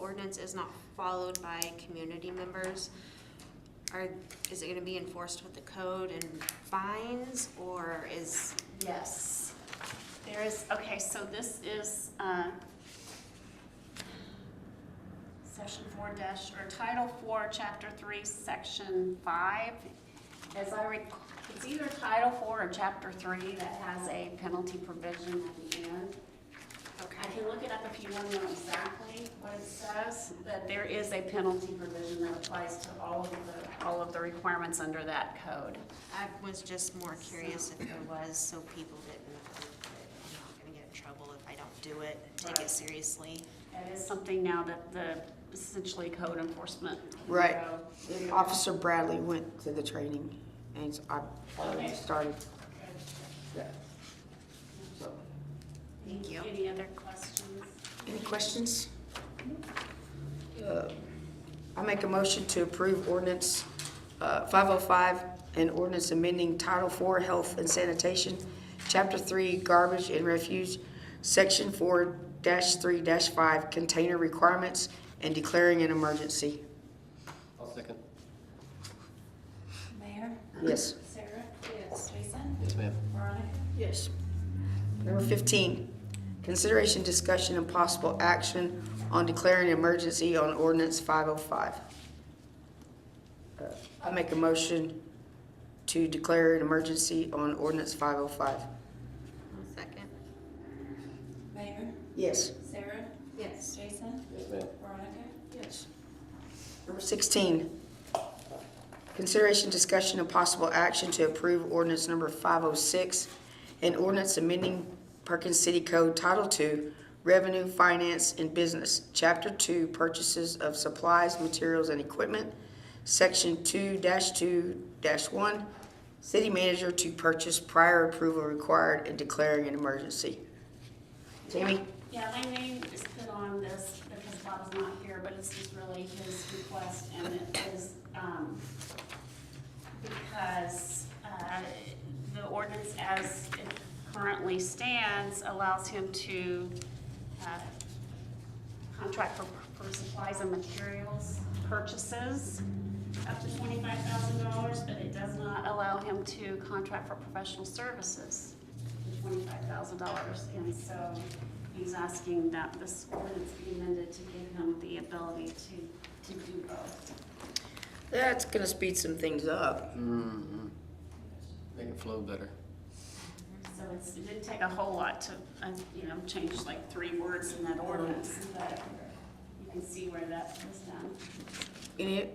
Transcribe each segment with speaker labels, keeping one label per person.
Speaker 1: ordinance is not followed by community members, are, is it gonna be enforced with the code and fines, or is,
Speaker 2: Yes. There is, okay, so this is, uh, section four dash, or title four, chapter three, section five. As I rec, it's either title four or chapter three that has a penalty provision at the end. I
Speaker 1: okay,
Speaker 2: can look it up if you want to know exactly what it says, but there is a penalty provision that applies to all of the, all of the requirements under that code.
Speaker 1: I was just more curious if there was, so people didn't, think that I'm not gonna get in trouble if I don't do it, take it
Speaker 2: Right.
Speaker 1: seriously.
Speaker 2: That is something now that the essentially code enforcement.
Speaker 3: Right.
Speaker 2: bureau-
Speaker 3: Officer Bradley went to the training and s- I already
Speaker 2: Okay.
Speaker 3: started that. So,
Speaker 1: Thank you.
Speaker 2: Any other questions?
Speaker 3: Any questions? Uh, I make a motion to approve ordinance uh, 505 and ordinance amending Title IV Health and Sanitation, Chapter 3 Garbage and Refuse, Section 4-3-5 Container Requirements and declaring an emergency.
Speaker 4: I'll second.
Speaker 5: Mayor?
Speaker 3: Yes.
Speaker 5: Sarah? Yes. Jason?
Speaker 4: Yes, ma'am.
Speaker 5: Veronica?
Speaker 3: Yes. Number 15, consideration, discussion, and possible action on declaring emergency on ordinance 505. Uh, I make a motion to declare an emergency on ordinance 505.
Speaker 1: Second.
Speaker 5: Mayor?
Speaker 3: Yes.
Speaker 5: Sarah? Yes. Jason?
Speaker 4: Yes, ma'am.
Speaker 5: Veronica?
Speaker 3: Yes. Number 16, consideration, discussion, and possible action to approve ordinance number 506, an ordinance amending Perkins City Code Title II, Revenue, Finance, and Business, Chapter 2, Purchases of Supplies, Materials, and Equipment, Section 2-2-1, City Manager to purchase prior approval required and declaring an emergency. Jamie?
Speaker 2: Yeah, my name is put on this because Bob's not here, but it's just really his request and it is, um, because, uh, the ordinance as it currently stands allows him to, uh, contract for, for supplies and materials purchases up to twenty-five thousand dollars, but it does not allow him to contract for professional services for twenty-five thousand dollars. And so he's asking that this ordinance be amended to give him the ability to, to do both.
Speaker 3: That's gonna speed some things up.
Speaker 4: Mm-hmm. Make it flow better.
Speaker 2: So it's, it didn't take a whole lot to, uh, you know, change like three words in that ordinance, but you can see where that was done.
Speaker 3: Any,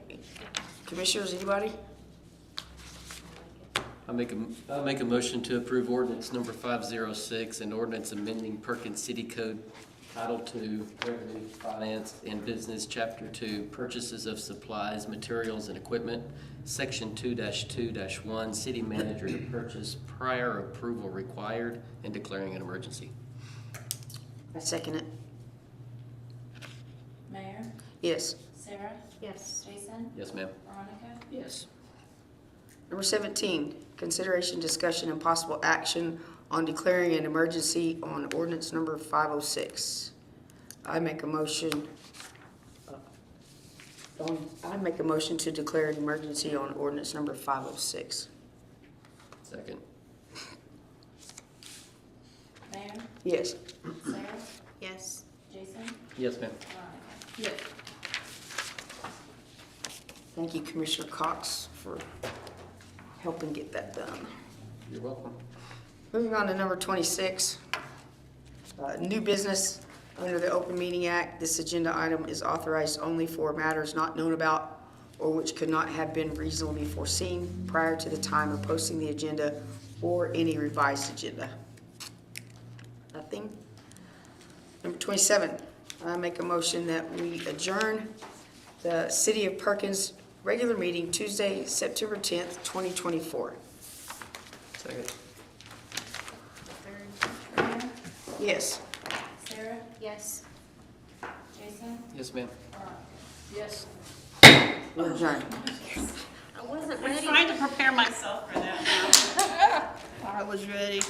Speaker 3: commissioners, anybody?
Speaker 4: I make a, I make a motion to approve ordinance number five zero six and ordinance amending Perkins City Code Title Two, Revenue, Finance, and Business, Chapter Two, Purchases of Supplies, Materials, and Equipment, Section two two one, City Manager to purchase prior approval required and declaring an emergency.
Speaker 3: I second it.
Speaker 5: Mayor?
Speaker 3: Yes.
Speaker 5: Sarah?
Speaker 1: Yes.
Speaker 5: Jason?
Speaker 4: Yes, ma'am.
Speaker 5: Veronica?
Speaker 3: Yes. Number 17, consideration, discussion, and possible action on declaring an emergency on ordinance number 506. I make a motion, uh, on- I make a motion to declare an emergency on ordinance number 506.
Speaker 4: Second.
Speaker 5: Mayor?
Speaker 3: Yes.
Speaker 5: Sarah?
Speaker 1: Yes.
Speaker 5: Jason?
Speaker 4: Yes, ma'am.
Speaker 5: Veronica?
Speaker 3: Thank you, Commissioner Cox, for helping get that done.
Speaker 4: You're welcome.
Speaker 3: Moving on to number 26, uh, new business under the Open Meeting Act. This agenda item is authorized only for matters not known about or which could not have been reasonably foreseen prior to the time of posting the agenda or any revised agenda. Nothing. Number 27, I make a motion that we adjourn the City of Perkins regular meeting Tuesday, September 10th, 2024.
Speaker 4: Second.
Speaker 1: Third.
Speaker 5: Mayor?
Speaker 3: Yes.
Speaker 5: Sarah?
Speaker 1: Yes.
Speaker 5: Jason?
Speaker 4: Yes, ma'am.
Speaker 5: Veronica?
Speaker 3: Yes. We're adjourned.
Speaker 1: I wasn't
Speaker 2: I'm
Speaker 1: ready.
Speaker 2: trying to prepare myself for that now.
Speaker 6: I was ready.